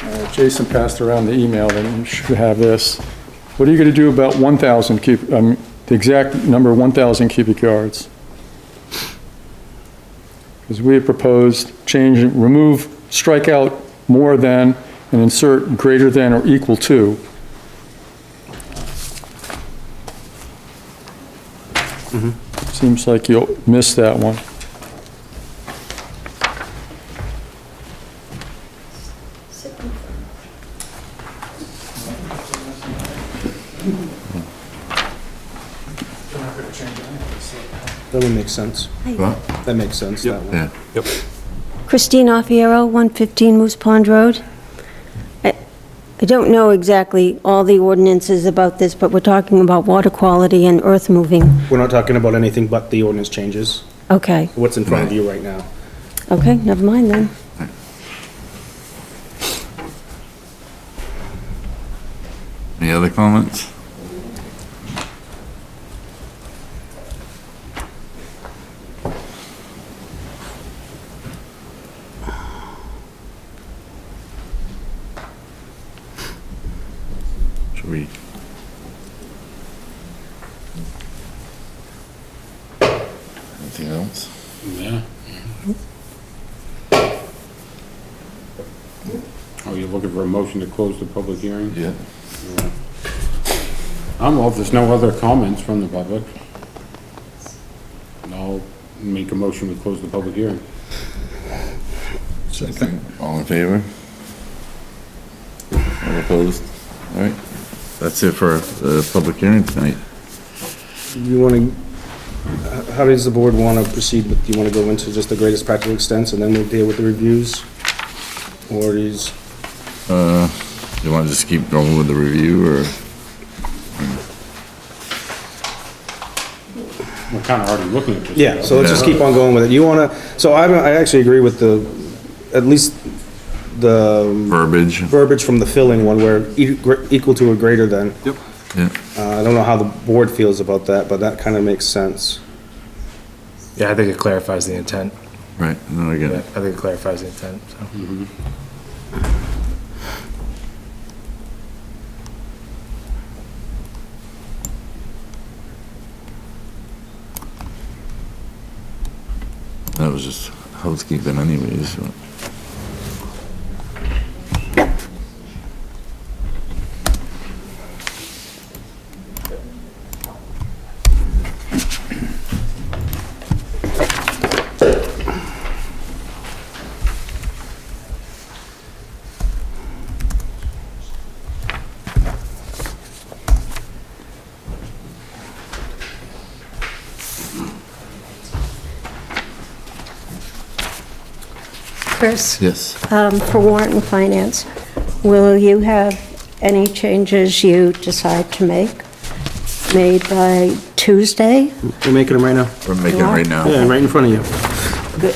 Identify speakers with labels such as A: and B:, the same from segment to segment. A: Uh, Jason passed around the email, and you should have this. What are you going to do about 1,000 cubic, um, the exact number 1,000 cubic yards? Because we have proposed change, remove, strike out more than, and insert greater than or equal to. Seems like you'll miss that one.
B: That would make sense. That makes sense, that one.
C: Yeah.
D: Christine Offiero, 115 Moose Pond Road. I I don't know exactly all the ordinances about this, but we're talking about water quality and earth moving.
B: We're not talking about anything but the ordinance changes,
D: Okay,
B: what's in front of you right now.
D: okay, never mind then.
C: Any other comments? Should we? Anything else?
E: Yeah. Oh, you're looking for a motion to close the public hearing?
C: Yeah.
E: I'm all, there's no other comments from the public. And I'll make a motion to close the public hearing.
C: Second. All in favor? All opposed? All right. That's it for the public hearing tonight.
B: You want to, how does the board want to proceed with, do you want to go into just the greatest practical extents and then we'll deal with the reviews? Or is,
C: You want to just keep going with the review, or?
E: We're kind of already looking at this.
B: yeah, so let's just
C: Yeah.
B: keep on going with it. You want to, so I, don't- I actually agree with the, at least the
C: Verbiage.
B: verbiage from the filling one where e- gre- equal to or greater than. Yep.
C: Yeah.
B: Uh, I don't know how the board feels about that, but that kind of makes sense.
F: Yeah, I think it clarifies the intent.
C: Right, no, I get
F: Yeah, I
C: it.
F: think it clarifies the intent, so.
C: That was just housekeeping anyways. so.
G: Chris,
C: Yes.
G: um, for warrant and finance, will you have any changes you decide to make made by Tuesday?
B: We're making them right now.
C: We're making it right now.
B: right in front of you.
G: Good.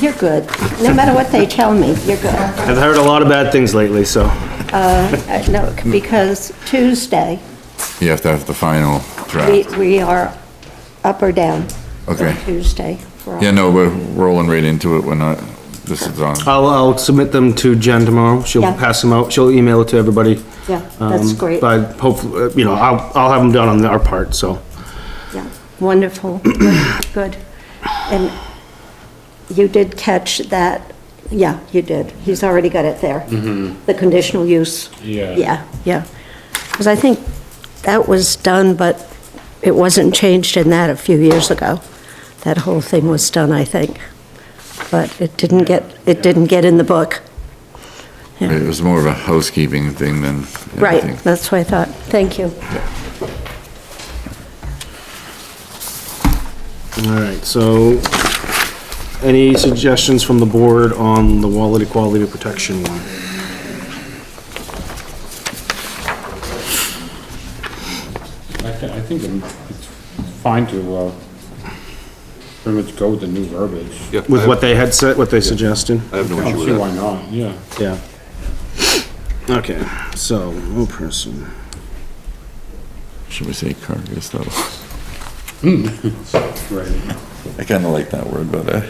G: You're good. No matter what they tell me, you're good.
B: I've heard a lot of bad things lately, so.
G: Uh, No, because Tuesday,
C: You have to have the final
G: we
C: draft.
G: we are up or down
C: Okay.
G: on Tuesday. for all-
C: Yeah, no, we're rolling right into it. We're not, this is on.
B: I'll, I'll submit them to Jen tomorrow. She'll
G: Yeah.
B: pass them out. She'll email it to everybody.
G: Yeah, that's
B: Um,
G: great.
B: But hopefully, uh, you know, I'll, I'll have them done on our part, so.
G: Yeah, Wonderful, good. And you did catch that, yeah, you did. He's already got it there. The conditional use.
E: Yeah.
G: Yeah, yeah. Because I think that was done, but it wasn't changed in that a few years ago. That whole thing was done, I think. But it didn't get, it didn't get in the book.
C: It was more of a housekeeping thing than
G: Right,
C: anything.
G: that's what I thought. Thank you.
B: All right, so any suggestions from the board on the wallet equality protection one?
E: I thi- I think I'm- it's fine to, uh, pretty much go with the new verbiage.
H: Yeah,
B: With
H: I-
B: what they had said, what they suggested?
H: I have no
E: I
H: issue
E: don't
H: with
E: see
H: that.
E: why not, yeah.
B: Yeah. Okay, so, no person.
C: Should we say carcass though?
E: Right.
C: I kind of like that word better.